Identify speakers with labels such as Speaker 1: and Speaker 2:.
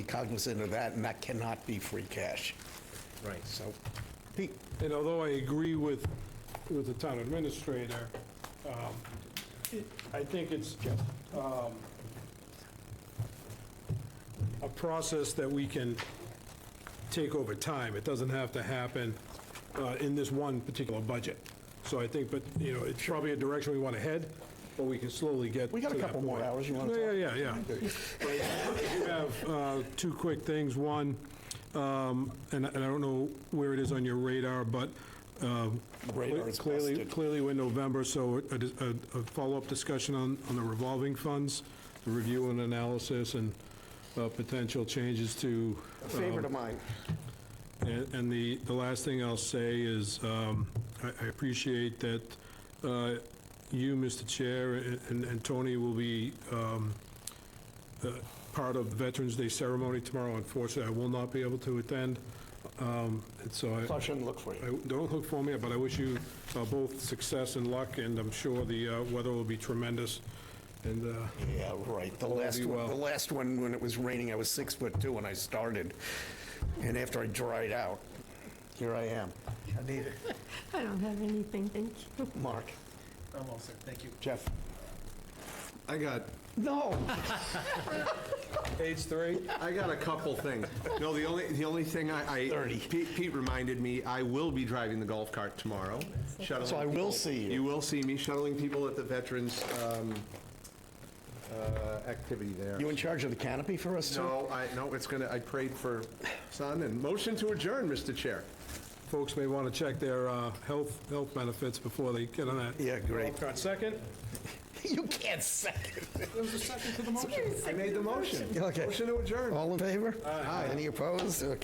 Speaker 1: cognizant of that, and that cannot be free cash.
Speaker 2: Right.
Speaker 1: So, Pete,
Speaker 3: And although I agree with, with the town administrator, um, it- I think it's um, a process that we can take over time. It doesn't have to happen uh, in this one particular budget. So I think, but, you know, it's probably a direction we want to head, but we can slowly get
Speaker 1: We got a
Speaker 3: to that
Speaker 1: couple more
Speaker 3: point.
Speaker 1: hours. You wanna
Speaker 3: Yeah, Yeah, yeah, yeah. I have uh, two quick things. One, um, and and I don't know where it is on your radar, but um,
Speaker 1: radar is
Speaker 3: clearly,
Speaker 1: busted.
Speaker 3: clearly we're in November, so a dis- a a follow-up discussion on on the revolving funds, the review and analysis and uh, potential changes to
Speaker 1: Favorite of mine.
Speaker 3: and and the, the last thing I'll say is, um, I I appreciate that uh, you, Mr. Chair, and and Tony will be um, uh, part of the Veterans Day ceremony tomorrow. Unfortunately, I will not be able to attend, Um, and so I,
Speaker 1: Flush and look for you.
Speaker 3: I- don't look for me, but I wish you uh, both success and luck, and I'm sure the uh, weather will be tremendous, and uh,
Speaker 1: Yeah, right. The
Speaker 3: All will
Speaker 1: last
Speaker 3: be
Speaker 1: one,
Speaker 3: well.
Speaker 1: the last one, when it was raining, I was six foot two when I started. And after I dried out, here I am. Anita,
Speaker 4: I don't have anything, thank you.
Speaker 1: Mark,
Speaker 2: I'm all set, thank you.
Speaker 1: Jeff.
Speaker 5: I got,
Speaker 1: No,
Speaker 3: page three.
Speaker 5: I got a couple things. No, the only, the only thing I, I.
Speaker 1: Thirty.
Speaker 5: Pete Pete reminded me, I will be driving the golf cart tomorrow, shuttling.
Speaker 1: So I will
Speaker 5: people-
Speaker 1: see you.
Speaker 5: You will see me shuttling people at the Veterans um, uh, activity there.
Speaker 1: you in charge of the canopy for us, too?
Speaker 5: No, I, no, it's gonna, I prayed for sun and motion to adjourn, Mr. Chair.
Speaker 3: Folks may want to check their uh, health, health benefits before they get on that.
Speaker 1: Yeah, great.
Speaker 3: Got second?
Speaker 1: You can't second.
Speaker 5: I made the motion.
Speaker 1: Okay.
Speaker 5: Motion to adjourn.
Speaker 1: All in favor? Aye. Any opposed? Okay.